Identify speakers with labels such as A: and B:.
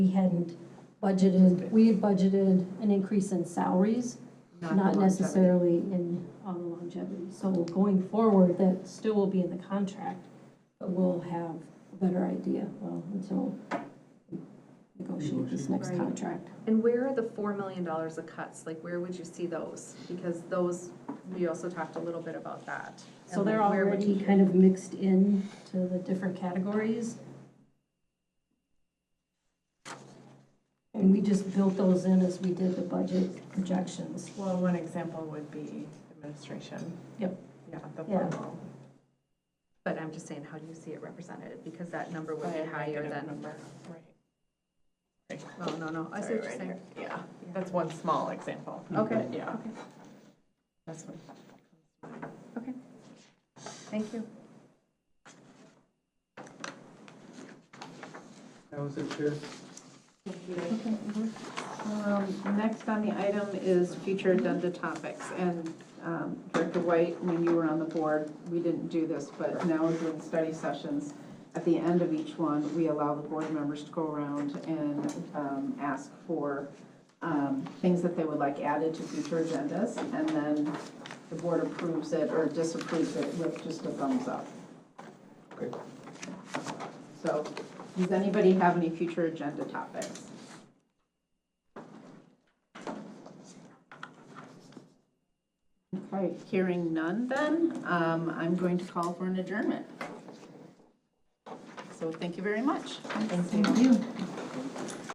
A: we hadn't budgeted, we had budgeted an increase in salaries,
B: the
A: not
B: longevity.
A: necessarily in on the longevity. So going forward, that still will be in the contract, but we'll have a better idea, well, until we negotiate this next
B: Right.
A: contract.
B: And where are the four million dollars of cuts? Like, where would you see those? Because those, we also talked a little bit about that.
A: So
B: And
A: they're
B: like, where would
A: already
B: you-
A: kind of mixed in to the different categories. And we just built those in as we did the budget projections.
C: Well, one example would be administration.
A: Yep.
C: Yeah, the
A: Yeah.
C: formal.
B: But I'm just saying, how do you see it represented? Because that number would
C: by
B: be
C: a
B: higher
C: negative
B: than,
C: number. Right.
B: well, no, no, I see
C: Sorry,
B: what you're
C: right
B: saying.
C: here. Yeah, that's one small example.
B: Okay.
C: But Yeah,
B: Okay,
C: that's what.
B: thank you.
D: That was it, Chair.
E: Um, Next on the item is future agenda topics, and um, Director White, when you were on the board, we didn't do this, but now we're doing study sessions. At the end of each one, we allow the board members to go around and um, ask for um, things that they would like added to future agendas, and then the board approves it or disapproves it with just a thumbs up.
D: Okay.
E: So, does anybody have any future agenda topics? Okay, hearing none then, um, I'm going to call for an adjournment. So thank you very much. Thank you.